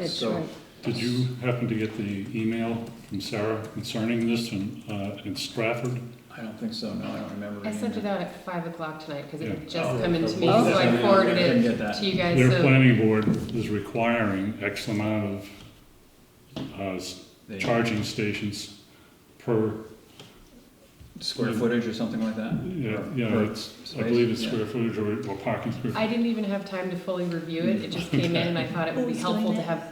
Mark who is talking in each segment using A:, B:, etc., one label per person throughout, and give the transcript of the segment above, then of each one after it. A: That's
B: So-
A: right.
C: Did you happen to get the email from Sarah concerning this in, uh, in Stratford?
B: I don't think so, no, I don't remember.
D: I
B: reading
D: sent
B: that.
D: it out at five o'clock tonight because
C: Yeah.
D: it had just
B: Oh,
D: come into me,
B: oh,
D: so I
B: okay.
D: forwarded
B: I didn't
D: it
B: get that.
D: to you guys.
C: Their
D: So
C: planning board is requiring X amount of, uh, s-
B: They-
C: charging stations per,
B: Square footage or something like that?
C: yeah,
B: Or-
C: yeah,
B: or
C: it's, I
B: space?
C: believe it's
B: Yeah.
C: square footage or, or parking square.
D: I didn't even have time to fully review it. It just came in and I thought it would be
A: Who's
D: helpful
A: doing
D: to
A: it?
D: have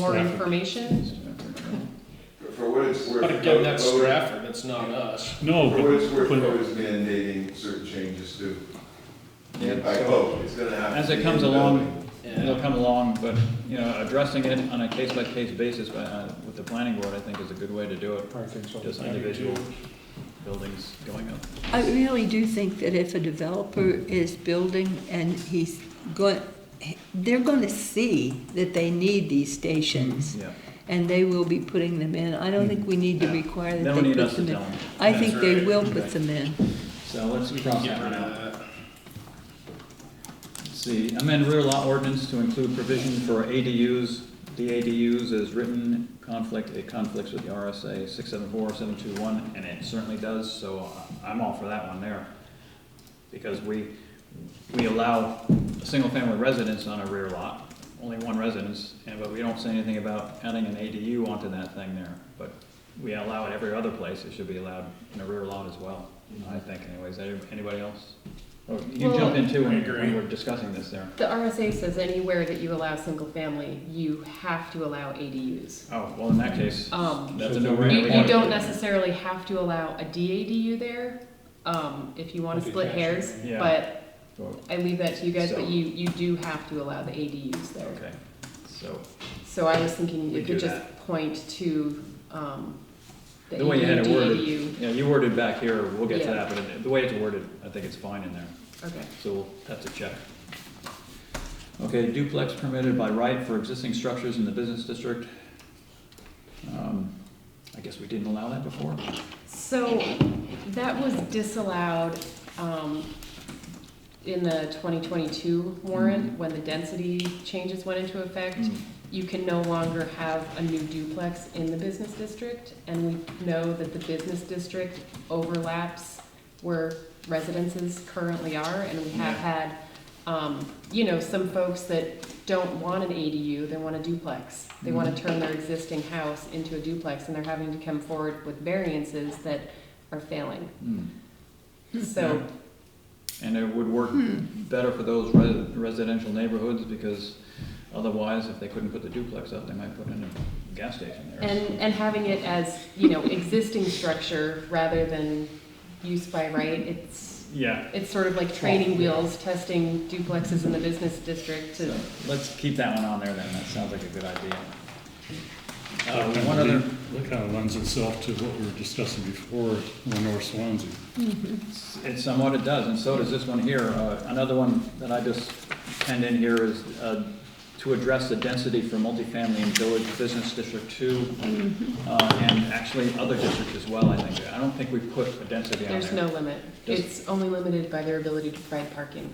D: more
C: Staff.
D: information.
E: For what it's worth.
F: But again,
E: code-
F: that's
E: code-
F: Stratford, that's not us.
C: No,
E: For what it's
C: but,
E: worth,
C: but
E: code is mandating certain changes to,
B: Yeah,
E: by
B: so-
E: code, it's gonna have to.
B: As it
E: be
B: comes
E: in the
B: along,
E: building.
B: It'll come along, but, you know, addressing it on a case-by-case basis by, uh, with the planning board, I think is a good way to do it. Just individual buildings going up.
A: I really do think that if a developer is building and he's going, they're going to see that they need these stations,
B: Yeah.
A: and they will be putting them in. I don't think we need to require
B: Mm-hmm. They
A: that
B: don't
A: they
B: need
A: put
B: us to
A: them
B: tell
A: in.
B: them.
A: I think they
F: That's
A: will
B: right.
A: put them in.
B: So let's
F: We can
B: cross
F: get
B: that
F: rid
B: one out.
F: of that.
B: See, amend rear lot ordinance to include provision for ADUs. The ADUs is written conflict, it conflicts with the RSA six seven four, seven two one, and it certainly does, so I- I'm all for that one there. Because we, we allow a single-family residence on a rear lot, only one residence, and, but we don't say anything about adding an ADU onto that thing there. But we allow it every other place, it should be allowed in a rear lot as well, I think anyways. Any- Anybody else? Oh, You
D: Well,
B: jumped in too when
F: I agree.
B: when we were discussing this there.
D: The RSA says anywhere that you allow single family, you have to allow ADUs.
B: Oh, well, in that case,
D: Um,
B: that's a
D: You,
B: no-brainer.
D: you don't necessarily have to allow a DADU there, um, if you wanna split hairs,
B: Yeah.
D: but
B: So,
D: I leave that to you guys,
B: So-
D: but you, you do have to allow the ADUs there.
B: Okay, so,
D: So I was thinking
B: We
D: you could
B: do
D: just point to, um, the
B: the way you had
D: ADU,
B: it
D: DADU.
B: worded, yeah, you worded back here, we'll get to
D: Yeah.
B: that, but it- the way it's worded, I think it's fine in there,
D: Okay,
B: so we'll have to check. Okay, duplex permitted by right for existing structures in the business district. Um, I guess we didn't allow that before?
D: so that was disallowed, um, in the twenty twenty-two warrant,
B: Mm-hmm.
D: when the density changes went into effect.
B: Mm,
D: you can no longer have a new duplex in the business district, and we know that the business district overlaps where residences currently are, and we have had, um, you know, some folks that don't want an ADU, they want a duplex. They wanna turn their existing house into a duplex, and they're having to come forward with variances that are failing.
B: mm.
D: So,
B: And it would work
D: Hmm.
B: better for those res- residential neighborhoods, because otherwise, if they couldn't put the duplex up, they might put in a gas station there.
D: and, and having it as, you know, existing structure rather than use by right, it's,
B: Yeah,
D: It's sort of like training wheels, testing duplexes in the business district to,
B: so let's keep that one on there then, that sounds like a good idea. Uh,
C: that
B: one
C: kind
B: other,
C: of- that kind of lends itself to what we were discussing before on North Swansea.
B: it somewhat it does, and so does this one here. Uh, Another one that I just penned in here is uh, to address the density for multifamily in Village Business District Two,
D: Mm-hmm.
B: uh, and actually other districts as well, I think. I don't think we put a density on there.
D: there's no limit.
B: Does-
D: It's only limited by their ability to provide parking.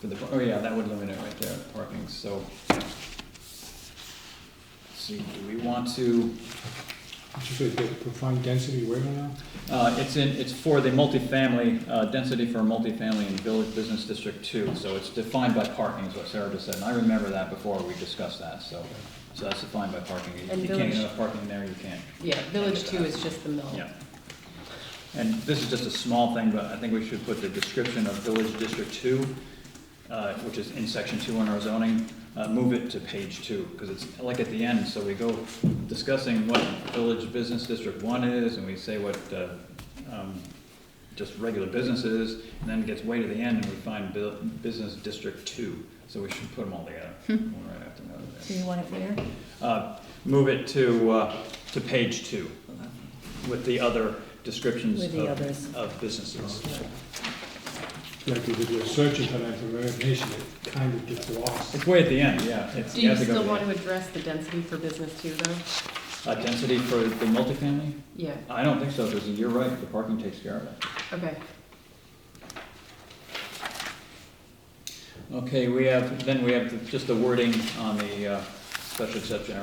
B: For the, oh yeah, that would limit it right there, parking, so. See, do we want to,
G: Did you say they define density where now?
B: uh, it's in, it's for the multifamily, uh, density for multifamily in Village Business District Two, so it's defined by parking, is what Sarah just said, and I remember that before we discussed that, so. So that's defined by parking, If
D: And
B: you can't
D: village-
B: get enough parking there, you can't,
D: Yeah, Village Two is just the mill.
B: yeah. And this is just a small thing, but I think we should put the description of Village District Two, uh, which is in section two on our zoning, uh, move it to page two, because it's like at the end, so we go discussing what Village Business District One is, and we say what, uh, um, just regular business is, and then it gets way to the end, and we find Bu- Business District Two, so we should put them all together. one right after another there.
A: Do Hmm. you want it where?
B: Uh, Move it to, uh, to page two, with the other descriptions
A: With the others.
B: of, of businesses.
G: Like, if you're searching for that information, it kind of gets lost.
B: It's way at the end, yeah. it's-
D: Do you
B: have to go
D: still
B: to
D: want
B: the-
D: to address the density for business too, though?
B: Uh, density for the multifamily?
D: Yeah,
B: I don't think so, because you're right, the parking takes care of it.
D: okay.
B: Okay, we have, then we have the- just the wording on the, uh, special exception